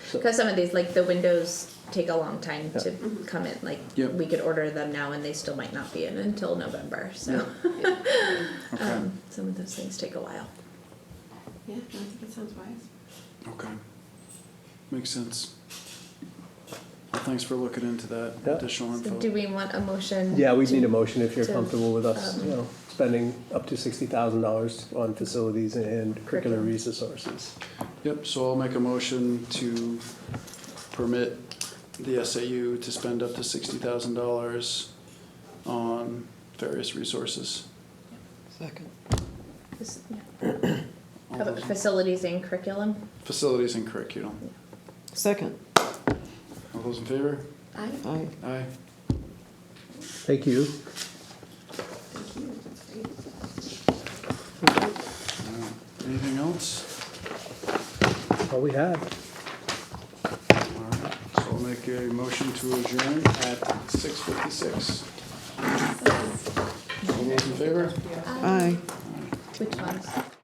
So- Because some of these, like the windows, take a long time to come in. Like Yep. we could order them now, and they still might not be in until November. So Okay, um, some of those things take a while. Yeah, no, I think it sounds wise. okay. Makes sense. Well, Thanks for looking into that Yeah. additional So do info. we want a motion? Yeah, we'd to- need a motion if you're to, comfortable with us, um, you know, spending up to sixty thousand dollars on facilities and curricular Curriculum. resources. Yep, so I'll make a motion to permit the SAU to spend up to sixty thousand dollars on various resources. Second. This- yeah. All How about those- facilities and curriculum. Facilities and curriculum. Second. All those in favor? I, Aye. Aye. Thank you. thank you, that's great. Anything else? All we have. All right, so I'll make a motion to adjourn at six fifty-six. All those in favor? Aye. Which ones?